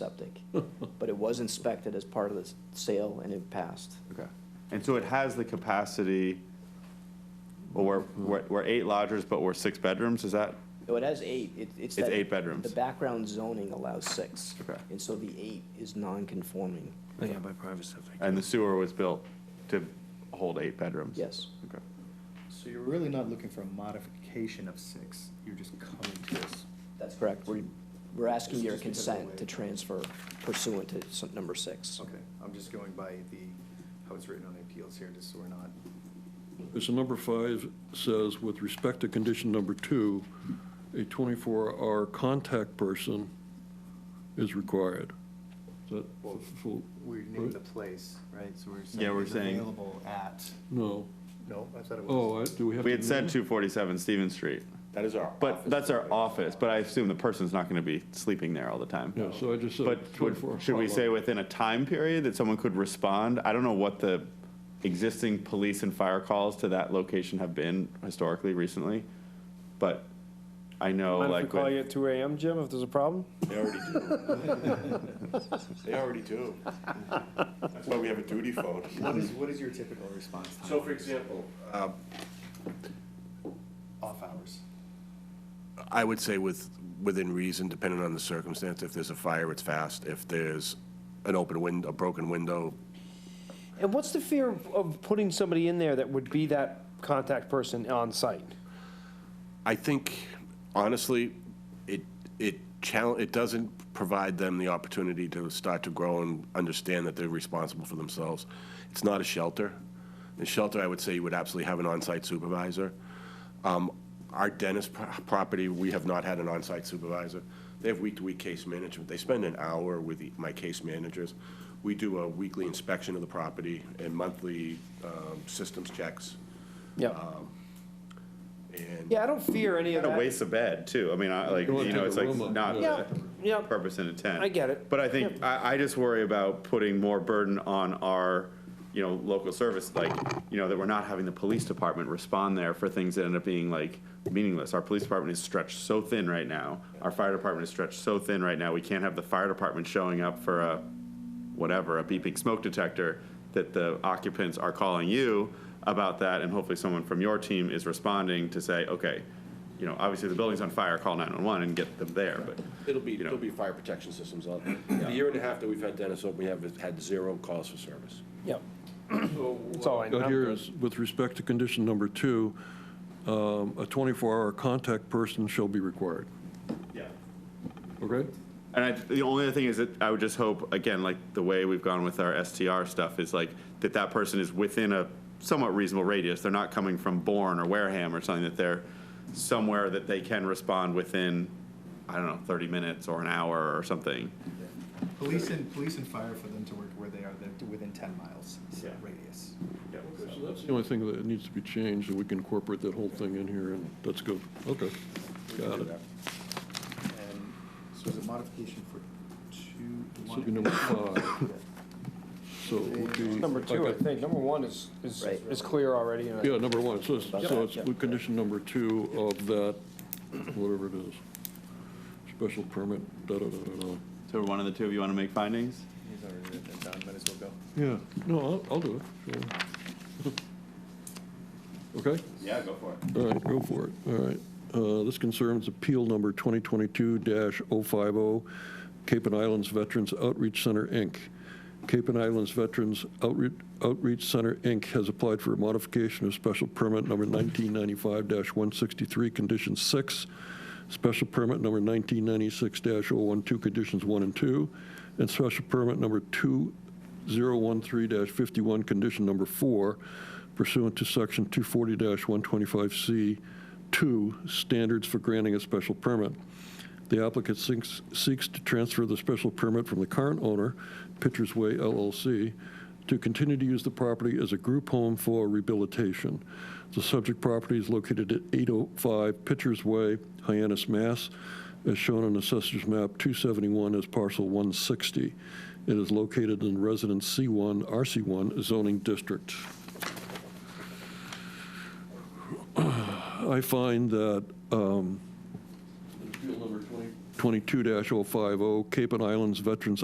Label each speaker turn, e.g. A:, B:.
A: septic. But it was inspected as part of the sale and it passed.
B: Okay. And so it has the capacity, well, we're, we're, we're eight lodgers, but we're six bedrooms, is that?
A: No, it has eight. It- It's
B: It's
A: that-
B: eight bedrooms.
A: The background zoning allows six.
B: Okay.
A: And so the eight is non-conforming,
C: Oh, Yeah, by private septic.
B: And the sewer was built to hold eight bedrooms?
A: yes.
B: Okay.
D: So you're really not looking for a modification of six, you're just coming to us.
A: That's correct. We're, we're asking your
D: Just because of the way-
A: consent to transfer pursuant to some- number six.
D: Okay, I'm just going by the, how it's written on appeals here, just so we're not.
E: So number five says, with respect to condition number two, a 24-hour contact person is required. Is that full?
D: We
E: right?
D: named the place, right, so we're saying.
B: Yeah, we're
D: it's
B: saying-
D: Available at,
E: No.
D: no, I thought it was.
E: Oh, I- do we have?
B: We
E: to
B: had said
E: name-
B: two forty-seven Stevens Street. That is our. But that's our office, but I assume the person's not gonna be sleeping there all the time.
E: Yeah, so I just said
B: But would-
E: 24.
B: should we say within a time period that someone could respond? I don't know what the existing police and fire calls to that location have been historically, recently, but I know
F: Mind if we
B: like.
F: call
B: with-
F: you at two AM, Jim, if there's a problem?
G: They already do. They already do. That's why we have a duty phone.
D: What is, what is your typical response time?
G: So for example, uh,
D: Off hours.
G: I would say with, within reason, depending on the circumstance, if there's a fire, it's fast. If there's an open window, a broken window,
F: And what's the fear of- of putting somebody in there that would be that contact person on site?
G: I think honestly, it, it challenge, it doesn't provide them the opportunity to start to grow and understand that they're responsible for themselves. It's not a shelter. The shelter, I would say, you would absolutely have an on-site supervisor. Um, Our dentist pro- property, we have not had an on-site supervisor. They have week-to-week case management. They spend an hour with the- my case managers. We do a weekly inspection of the property and monthly um, systems checks.
F: Yeah,
G: And
F: Um, yeah, I don't fear any of
B: Kind of
F: that.
B: waste of bed too. I mean, I like,
E: You wanna
B: you know,
E: take
B: it's
E: a
B: like
E: room up,
B: not
F: Yeah,
B: the
F: yeah,
B: purpose and intent.
F: I get it.
B: But I think, I, I just worry about putting more burden on our, you know, local service, like, you know, that we're not having the police department respond there for things that end up being like meaningless. Our police department is stretched so thin right now. Our fire department is stretched so thin right now. We can't have the fire department showing up for a, whatever, a beeping smoke detector that the occupants are calling you about that, and hopefully someone from your team is responding to say, okay, you know, obviously the building's on fire, call 911 and get them there, but.
G: It'll be,
B: you know.
G: there'll be fire protection systems on. The year and a half that we've had Dennis open, we have had zero calls for service.
F: Yeah. That's all I
E: Got here
F: know.
E: is, with respect to condition number two, um, a 24-hour contact person shall be required.
B: Yeah.
E: Okay?
B: And I, the only other thing is that I would just hope, again, like the way we've gone with our STR stuff is like that that person is within a somewhat reasonable radius. They're not coming from Bourne or Wareham or something, that they're somewhere that they can respond within, I don't know, 30 minutes or an hour or something.
D: Police and, police and fire for them to work where they are, they're to within ten miles
B: Yeah.
D: radius.
E: So that's the only thing that needs to be changed, and we can incorporate that whole thing in here, and that's good. Okay. Got it.
D: And so it's a modification for two.
E: So it'd be number
B: uh,
E: five. So it would be.
F: Number two, I think, number one is, is,
A: Right.
F: is clear already, and
E: Yeah,
F: I-
E: number one, so it's, so it's with condition number two of that, whatever it is. Special permit, da-da-da-da-da.
B: So one of the two of you want to make findings?
D: He's already written it down, might as well go.
E: Yeah, no, I'll, I'll do it, sure. Okay?
B: Yeah, go for it.
E: All right, go for it. All right. Uh, This concerns Appeal Number 2022-050, Cape and Islands Veterans Outreach Center, Inc. Cape and Islands Veterans Outreach Outreach Center, Inc. has applied for a modification of special permit number 1995-163, Condition 6, special permit number 1996-012, Conditions 1 and 2, and special permit number 2013-51, Condition Number 4, pursuant to Section 240-125C2, standards for granting a special permit. The applicant seeks, seeks to transfer the special permit from the current owner, Pitcher's Way LLC, to continue to use the property as a group home for rehabilitation. The subject property is located at 805 Pitcher's Way, Hyannis, Mass., as shown on Assessor's Map 271 as parcel 160. It is located in Residence C1, RC1 zoning district. I find that um, Appeal number 22-050, oh, Cape and Islands Veterans